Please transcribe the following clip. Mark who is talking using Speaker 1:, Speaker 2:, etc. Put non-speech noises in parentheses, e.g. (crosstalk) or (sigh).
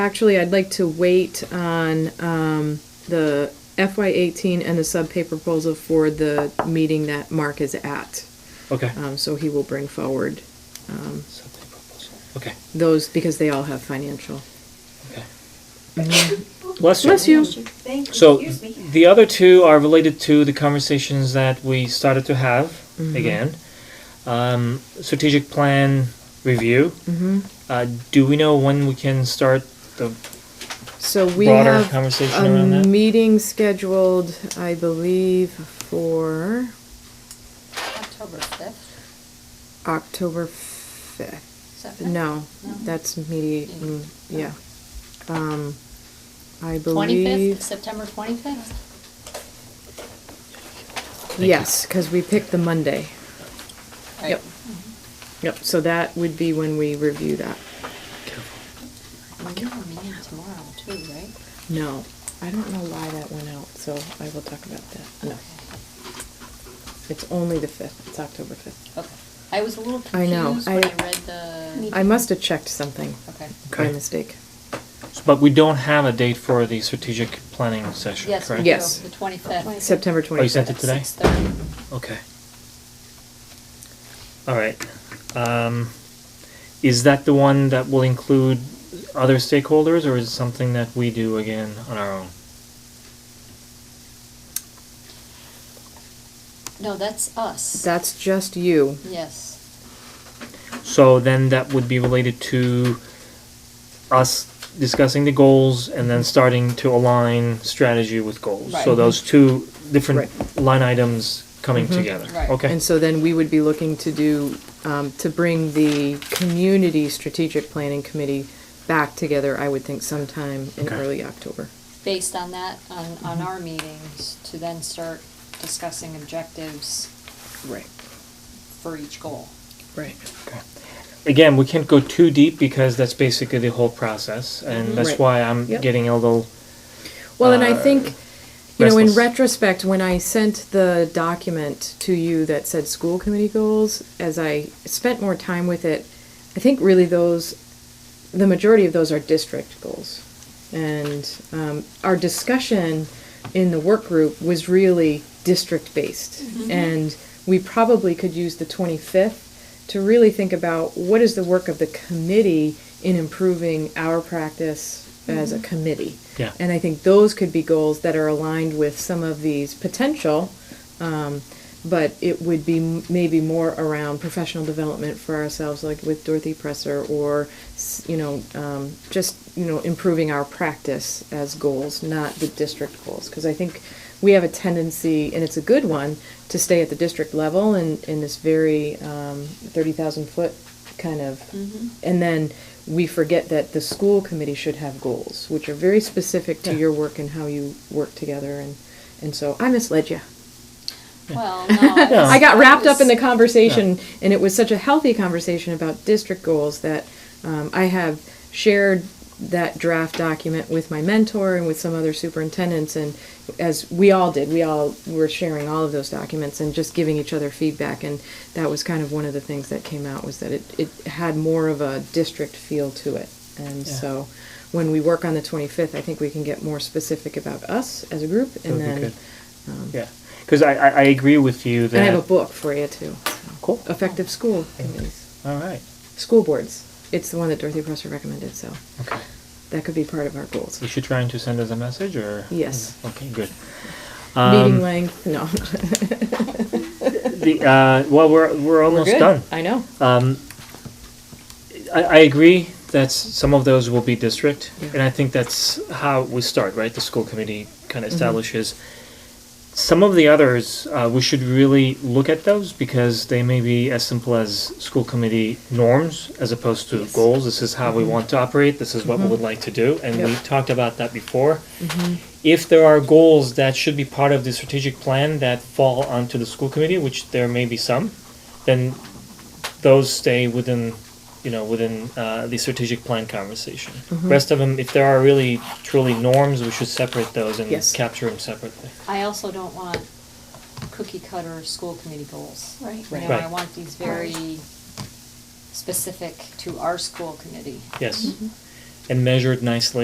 Speaker 1: Actually, I'd like to wait on um, the FY eighteen and the subpay proposal for the meeting that Mark is at.
Speaker 2: Okay.
Speaker 1: Um, So he will bring forward
Speaker 2: Something proposal. Okay,
Speaker 1: those because they all have financial.
Speaker 2: okay. Bless you.
Speaker 1: Bless you.
Speaker 3: Thank you.
Speaker 2: So
Speaker 3: Excuse me.
Speaker 2: the other two are related to the conversations that we started to have
Speaker 1: Mm-hmm.
Speaker 2: again. Um, strategic plan review.
Speaker 1: Mm-hmm.
Speaker 2: Uh, do we know when we can start the
Speaker 1: So we
Speaker 2: broader
Speaker 1: have
Speaker 2: conversation around
Speaker 1: a
Speaker 2: that?
Speaker 1: meeting scheduled, I believe, for
Speaker 4: October fifth,
Speaker 1: October fifth.
Speaker 4: seventh?
Speaker 1: No,
Speaker 4: No.
Speaker 1: that's mediating, yeah. Um, I
Speaker 4: Twenty-fifth,
Speaker 1: believe,
Speaker 4: September twenty-fifth?
Speaker 2: you.
Speaker 1: yes, because we picked the Monday.
Speaker 4: Right. Mm-hmm.
Speaker 1: Yep, so that would be when we review that.
Speaker 4: We have a meeting tomorrow too, right?
Speaker 1: No, I don't know why that went out, so I will talk about that. No, it's only the fifth, it's October fifth.
Speaker 4: Okay. I was a little
Speaker 1: I know,
Speaker 4: confused when
Speaker 1: I-
Speaker 4: I read the,
Speaker 1: I must have checked something
Speaker 4: okay.
Speaker 1: by
Speaker 2: Okay.
Speaker 1: mistake.
Speaker 2: But we don't have a date for the strategic planning session,
Speaker 4: Yes, we
Speaker 2: correct?
Speaker 4: do,
Speaker 1: Yes.
Speaker 4: the twenty-fifth.
Speaker 1: September
Speaker 2: Oh, you
Speaker 1: twenty-fifth.
Speaker 2: sent it today? Okay. All right. Um, is that the one that will include other stakeholders, or is it something that we do again on our own?
Speaker 4: No, that's us.
Speaker 1: That's just you.
Speaker 4: Yes,
Speaker 2: So then that would be related to us discussing the goals and then starting to align strategy with goals. So
Speaker 4: Right.
Speaker 2: those two different
Speaker 1: Right.
Speaker 2: line items coming together.
Speaker 4: Right.
Speaker 2: Okay.
Speaker 1: And so then we would be looking to do, um, to bring the community strategic planning committee back together, I would think sometime in
Speaker 2: Okay.
Speaker 1: early October.
Speaker 4: based on that, on, on our meetings, to then start discussing objectives
Speaker 1: Right,
Speaker 4: for each goal.
Speaker 1: right.
Speaker 2: again, we can't go too deep because that's basically the whole process, and that's
Speaker 1: Mm-hmm. Right.
Speaker 2: why I'm
Speaker 1: Yep.
Speaker 2: getting a little.
Speaker 1: Well, and I
Speaker 2: uh,
Speaker 1: think, you know, in
Speaker 2: restless.
Speaker 1: retrospect, when I sent the document to you that said school committee goals, as I spent more time with it, I think really those, the majority of those are district goals. And um, our discussion in the work group was really district based. And we probably could use the 25th to really think about what is the work of the committee in improving our practice as a committee.
Speaker 2: Yeah.
Speaker 1: And I think those could be goals that are aligned with some of these potential, um, but it would be m- maybe more around professional development for ourselves, like with Dorothy Presser, or, s- you know, um, just, you know, improving our practice as goals, not the district goals. Because I think we have a tendency, and it's a good one, to stay at the district level and in this very um, 30,000 foot kind of and then we forget that the school committee should have goals, which are very specific to
Speaker 2: Yeah.
Speaker 1: your work and how you work together. And, and so I misled you.
Speaker 2: (laughs)
Speaker 4: Well, no.
Speaker 2: No.
Speaker 1: I got wrapped up in the
Speaker 4: was-
Speaker 1: conversation, and it was such a healthy conversation about district goals that um, I have shared that draft document with my mentor and with some other superintendents. And as we all did, we all were sharing all of those documents and just giving each other feedback. And that was kind of one of the things that came out was that it, it had more of a district feel to it. And
Speaker 2: Yeah.
Speaker 1: so when we work on the 25th, I think we can get more specific about us as a group.
Speaker 2: would
Speaker 1: And
Speaker 2: be
Speaker 1: then
Speaker 2: good. Yeah, because I, I I agree with you that.
Speaker 1: and I have a book for you too.
Speaker 2: Cool.
Speaker 1: Effective school committees,
Speaker 2: All right.
Speaker 1: school boards. It's the one that Dorothy Presser recommended, so
Speaker 2: Okay.
Speaker 1: that could be part of our goals.
Speaker 2: Is she trying to send us a message or?
Speaker 1: Yes.
Speaker 2: Okay. Good.
Speaker 1: Meeting
Speaker 2: Um,
Speaker 1: length, no,
Speaker 2: the uh, well, we're we're
Speaker 1: we're
Speaker 2: almost done.
Speaker 1: good. I know.
Speaker 2: I, I agree that s- some of those will be district,
Speaker 1: Yeah.
Speaker 2: and I think that's how we start, right? The school committee
Speaker 1: Mm-hmm.
Speaker 2: kind of establishes. Some of the others, uh, we should really look at those because they may be as simple as school committee norms as opposed to
Speaker 1: Yes. Mm-hmm.
Speaker 2: goals. This is how we want to operate, this is what we would like to do, and we
Speaker 1: Yep. Mm-hmm.
Speaker 2: talked about that before. If there are goals that should be part of the strategic plan that fall onto the school committee, which there may be some, then those stay within, you know, within uh, the strategic plan conversation. Rest of them, if there are really truly norms, we should separate those and
Speaker 1: Yes.
Speaker 2: capture them separately.
Speaker 4: I also don't want cookie cutter school committee goals.
Speaker 3: Right.
Speaker 4: You know,
Speaker 2: Right.
Speaker 4: I want these very specific to our school committee.
Speaker 2: Yes, and measured nicely